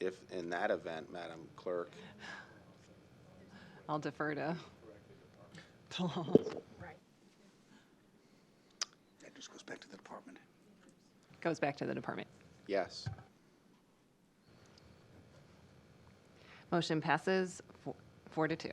if, in that event, Madam Clerk, I'll defer to the law. That just goes back to the department. Goes back to the department. yes. Motion passes fo- four to two.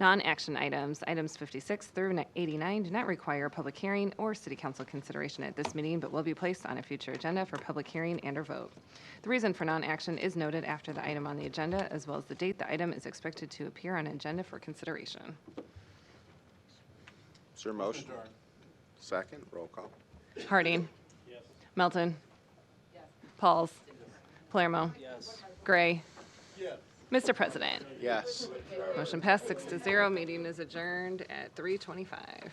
Non-action items, items 56 through ni- 89 do not require a public hearing or city council consideration at this meeting, but will be placed on a future agenda for public hearing and/or vote. The reason for non-action is noted after the item on the agenda, as well as the date the item is expected to appear on agenda for consideration. Is there a motion? Second, roll call. Harding. Melton. Pauls. Palermo. Gray. Mr. President, Yes. motion passed six to zero. Meeting is adjourned at 3:25.